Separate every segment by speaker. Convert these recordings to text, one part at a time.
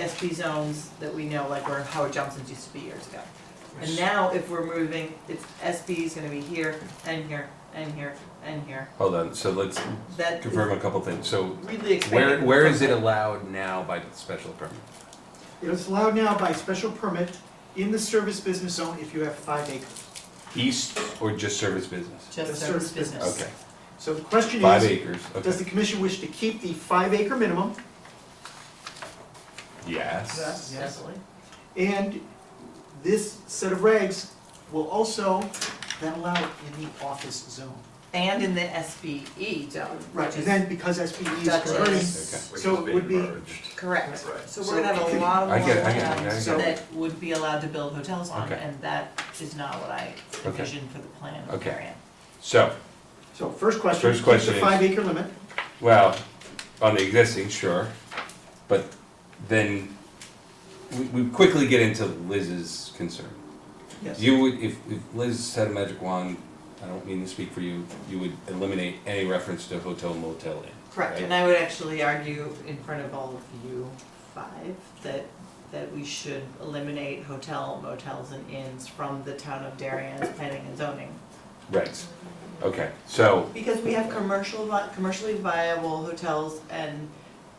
Speaker 1: SP zones that we know, like where Howard Johnson's used to be years ago. And
Speaker 2: Yes.
Speaker 1: now if we're moving, it's SB is gonna be here and here and here and here.
Speaker 3: Hold on, so let's
Speaker 1: That is
Speaker 3: confirm a couple things. So
Speaker 1: really
Speaker 3: where,
Speaker 1: expanding.
Speaker 3: where is it allowed now by the special permit?
Speaker 2: It's allowed now by special permit in the service business zone if you have five acres.
Speaker 3: East or just service business?
Speaker 1: Just
Speaker 2: Just
Speaker 1: service
Speaker 2: service business.
Speaker 1: business.
Speaker 3: Okay,
Speaker 2: So the question
Speaker 3: five
Speaker 2: is,
Speaker 3: acres,
Speaker 2: does the
Speaker 3: okay.
Speaker 2: commission wish to keep the five acre minimum?
Speaker 3: Yes.
Speaker 2: Yes.
Speaker 1: Definitely.
Speaker 2: And this set of regs will also then allow it in the office zone.
Speaker 1: And in the SBE zone,
Speaker 2: Right,
Speaker 1: which
Speaker 2: and
Speaker 1: is
Speaker 2: then because SPE is
Speaker 1: Dutchess.
Speaker 2: converting,
Speaker 3: Okay.
Speaker 4: Which
Speaker 2: So
Speaker 4: is
Speaker 2: it
Speaker 4: being
Speaker 2: would be-
Speaker 4: merged.
Speaker 1: correct.
Speaker 4: Right.
Speaker 1: So we're gonna have a lot of
Speaker 3: I get it, I
Speaker 1: more
Speaker 3: get it, I
Speaker 1: towns
Speaker 3: get
Speaker 2: it.
Speaker 1: that would be allowed to build hotels on,
Speaker 3: Okay.
Speaker 1: and that is not what I
Speaker 3: Okay.
Speaker 1: envisioned for the plan of
Speaker 3: Okay.
Speaker 1: Marion.
Speaker 3: So,
Speaker 2: so first question,
Speaker 3: First
Speaker 2: keep
Speaker 3: question
Speaker 2: the
Speaker 3: is-
Speaker 2: five acre limit.
Speaker 3: well, on the existing, sure, but then we, we quickly get into Liz's concern.
Speaker 2: Yes.
Speaker 3: You would, if, if Liz had a magic wand, I don't mean to speak for you, you would eliminate any reference to hotel motel inn.
Speaker 1: Correct,
Speaker 3: right?
Speaker 1: and I would actually argue in front of all of you five that, that we should eliminate hotel, motels and inns from the town of Darien's planning and zoning.
Speaker 3: Right, okay, so,
Speaker 1: Because we have commercial, vi- commercially viable hotels and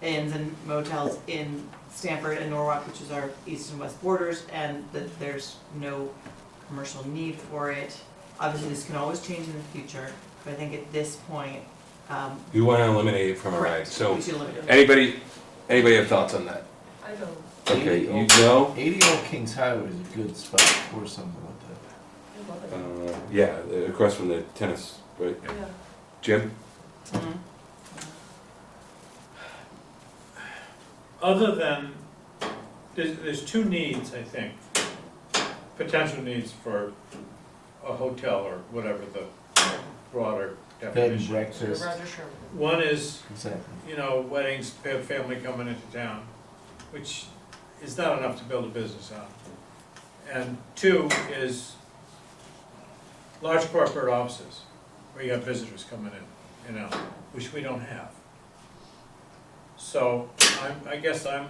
Speaker 1: inns and motels in Stamford and Norwalk, which is our east and west borders, and that there's no commercial need for it. Obviously, this can always change in the future, but I think at this point, um,
Speaker 3: you wanna eliminate it from a reg,
Speaker 1: correct,
Speaker 3: so,
Speaker 1: we should eliminate it.
Speaker 3: anybody, anybody have thoughts on that?
Speaker 5: I don't,
Speaker 3: Okay,
Speaker 6: Eighty
Speaker 3: you
Speaker 6: Old-
Speaker 3: know?
Speaker 6: Eighty Old Kings Highway is a good spot for something like that.
Speaker 5: I love it,
Speaker 3: Uh, yeah, across from the tennis, right,
Speaker 5: yeah.
Speaker 3: Jim?
Speaker 1: Mhm.
Speaker 7: other than, there's, there's two needs, I think, potential needs for a hotel or whatever the broader
Speaker 6: Bed and
Speaker 7: definition.
Speaker 6: breakfast,
Speaker 5: Roger Sherman.
Speaker 7: One is,
Speaker 6: exactly.
Speaker 7: you know, weddings, fa- family coming into town, which is not enough to build a business on. And two is large corporate offices, where you have visitors coming in, you know, which we don't have. So I'm, I guess I'm,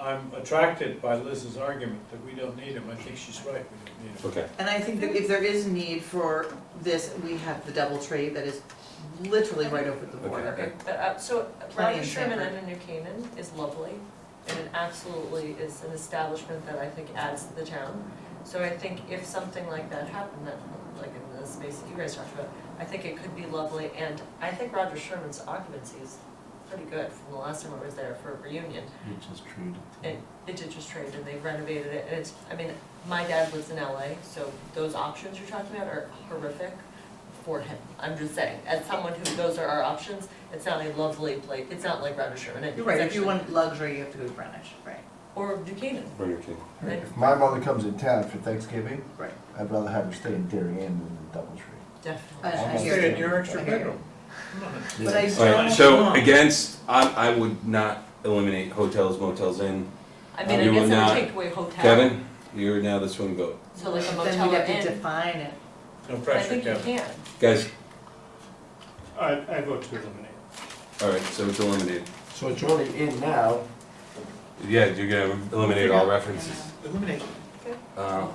Speaker 7: I'm attracted by Liz's argument that we don't need them. I think she's right, we don't need them.
Speaker 3: Okay.
Speaker 1: And I think that if there is need for this, we have the double tree that is literally right over the border.
Speaker 3: Okay.
Speaker 5: But, uh, so
Speaker 1: Plenty
Speaker 5: Roger
Speaker 1: in
Speaker 5: Sherman
Speaker 1: Sanford.
Speaker 5: under New Canaan is lovely, and it absolutely is an establishment that I think adds to the town. So I think if something like that happened, that, like in the space that you guys talked about, I think it could be lovely, and I think Roger Sherman's occupancy is pretty good from the last time I was there for a reunion.
Speaker 6: Which is true. to-
Speaker 5: It, it did just trade, and they renovated it, and it's, I mean, my dad lives in LA, so those options you're talking about are horrific for him, I'm just saying, as someone who, those are our options, it's not a lovely place, it's not like Roger Sherman, it's
Speaker 1: You're right, if you
Speaker 5: actually-
Speaker 1: want luxury, you have to go to Greenwich, right?
Speaker 5: Or Duquesne,
Speaker 3: Burger King.
Speaker 5: right,
Speaker 6: If my mother comes in town for Thanksgiving,
Speaker 1: Right.
Speaker 6: I'd rather have her stay in Darien than in Doubletree.
Speaker 5: definitely.
Speaker 1: I- I
Speaker 3: Uh,
Speaker 6: Almost
Speaker 1: hear
Speaker 7: Stay in
Speaker 1: you.
Speaker 7: your extra
Speaker 1: I hear you.
Speaker 7: bedroom. Come on.
Speaker 1: But I
Speaker 3: All right,
Speaker 1: don't
Speaker 3: so
Speaker 1: want-
Speaker 3: against, I, I would not eliminate hotels, motels in.
Speaker 5: I mean, I
Speaker 3: You
Speaker 5: guess
Speaker 3: would
Speaker 5: I
Speaker 3: not-
Speaker 5: would take away hotel.
Speaker 3: Kevin, you're now the swing vote.
Speaker 5: So like a
Speaker 1: But
Speaker 5: motel or
Speaker 1: Then we'd have to
Speaker 5: inn,
Speaker 1: define it.
Speaker 7: No
Speaker 5: I
Speaker 7: pressure,
Speaker 5: think you
Speaker 7: Kevin.
Speaker 5: can,
Speaker 3: Guys,
Speaker 7: I, I vote to eliminate.
Speaker 3: all right, so it's eliminated.
Speaker 6: So it's only in now,
Speaker 3: Yeah, you're gonna eliminate all references.
Speaker 2: Eliminate.
Speaker 3: Um,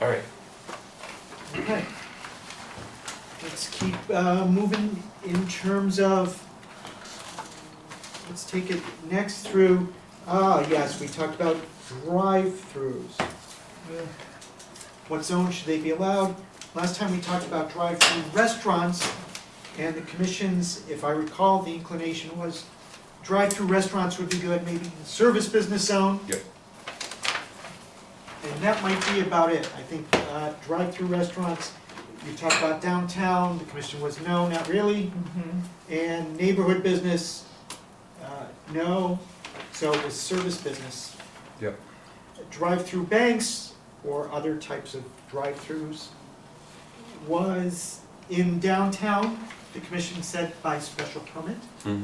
Speaker 3: all right,
Speaker 2: Okay. Let's keep uh, moving in terms of, let's take it next through, ah, yes, we talked about drive-throughs. What zone should they be allowed? Last time we talked about drive-through restaurants, and the commission's, if I recall, the inclination was drive-through restaurants would be good, maybe in the service business zone.
Speaker 3: Yep.
Speaker 2: And that might be about it. I think uh, drive-through restaurants, you talked about downtown, the commission was no, not really. And neighborhood business, uh, no, so it was service business.
Speaker 3: Yep.
Speaker 2: Drive-through banks or other types of drive-throughs was in downtown, the commission said by special permit.
Speaker 3: mhm.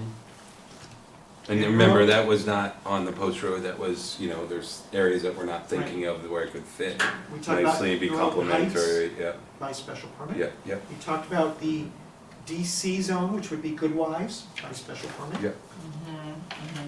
Speaker 3: And remember, that was not on the post road, that was, you know, there's areas that we're not thinking of where it could fit
Speaker 2: We talked about
Speaker 3: nicely, be
Speaker 2: Norwood Heights
Speaker 3: complementary, yeah,
Speaker 2: By special permit.
Speaker 3: yeah, yeah.
Speaker 2: We talked about the DC zone, which would be Goodwives by special permit.
Speaker 3: Yep.